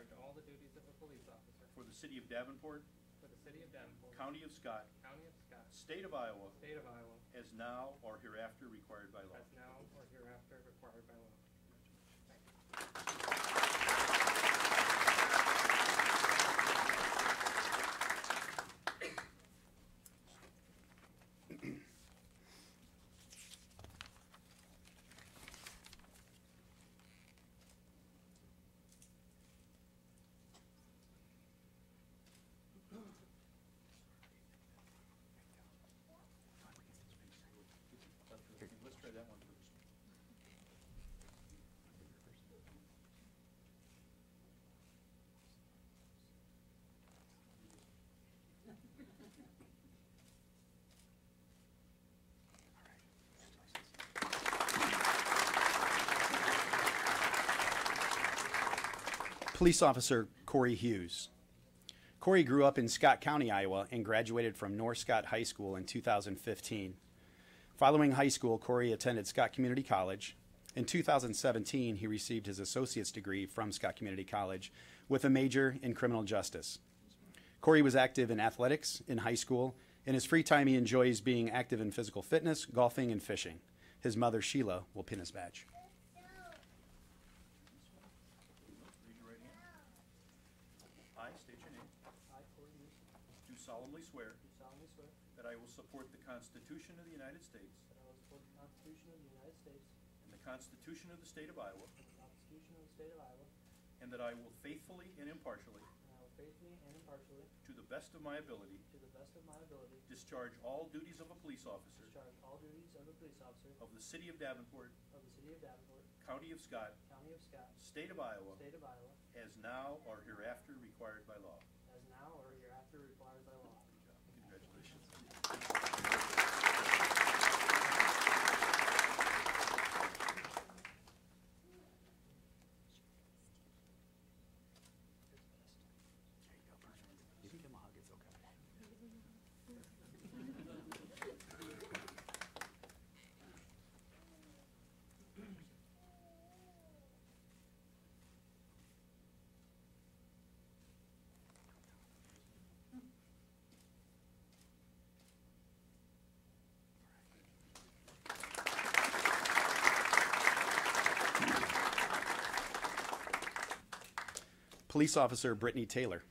duties of a police officer for the City of Davenport, for the city of Davenport, County of Scott, county of Scott, State of Iowa, state of Iowa, as now or hereafter required by law. as now or hereafter required by law. Let's try that one first. Police Officer Corey Hughes. Corey grew up in Scott County, Iowa, and graduated from North Scott High School in 2015. Following high school, Corey attended Scott Community College. In 2017, he received his associate's degree from Scott Community College with a major in criminal justice. Corey was active in athletics in high school. In his free time, he enjoys being active in physical fitness, golfing, and fishing. His mother, Sheila, will pin his badge. Raise your right hand. I state your name. I, Corey Newsom, Do solemnly swear do solemnly swear that that I will support the Constitution of the United States I will support the Constitution of the United States and the Constitution of the State of Iowa, and the Constitution of the state of Iowa, and that I will faithfully and impartially, and I will faithfully and impartially, to the best of my ability, to the best of my ability, discharge all duties of a police officer discharge all duties of a police officer of the City of Davenport, of the city of Davenport, County of Scott, county of Scott, State of Iowa, state of Iowa, as now or hereafter required by law. as now or hereafter required by law. Congratulations. police officer Brittany Taylor.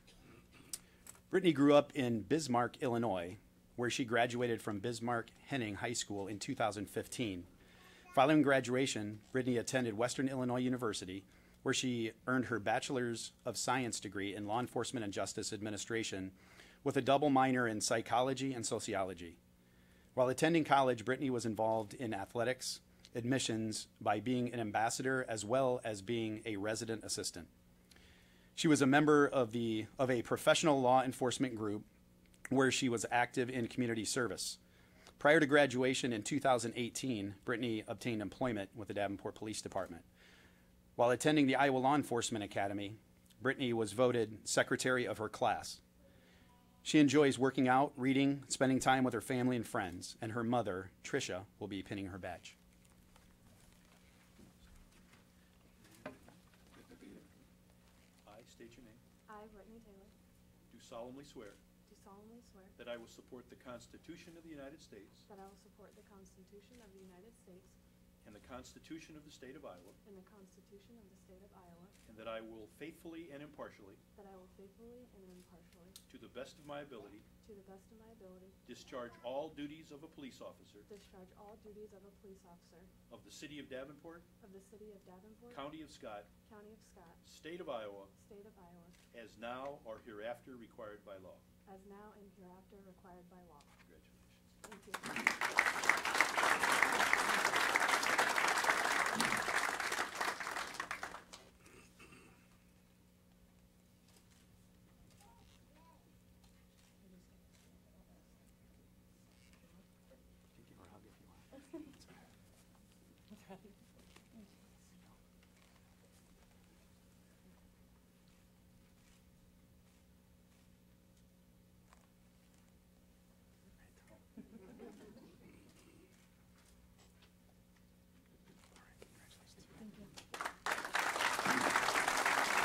Brittany grew up in Bismarck, Illinois, where she graduated from Bismarck Henning High School in 2015. Following graduation, Brittany attended Western Illinois University, where she earned her Bachelor's of Science degree in Law Enforcement and Justice Administration with a double minor in psychology and sociology. While attending college, Brittany was involved in athletics admissions by being an ambassador as well as being a resident assistant. She was a member of the of a professional law enforcement group where she was active in community service. Prior to graduation in 2018, Brittany obtained employment with the Davenport Police Department. While attending the Iowa Law Enforcement Academy, Brittany was voted secretary of her class. She enjoys working out, reading, spending time with her family and friends, and her mother, Tricia, will be pinning her badge. I state your name. I, Brittany Taylor, Do solemnly swear do solemnly swear that I will support the Constitution of the United States that I will support the Constitution of the United States and the Constitution of the State of Iowa, and the Constitution of the State of Iowa, and that I will faithfully and impartially, that I will faithfully and impartially, to the best of my ability, to the best of my ability, discharge all duties of a police officer discharge all duties of a police officer of the City of Davenport, of the City of Davenport, County of Scott, County of Scott, State of Iowa, State of Iowa, as now or hereafter required by law. as now and hereafter required by law. Congratulations. Thank you.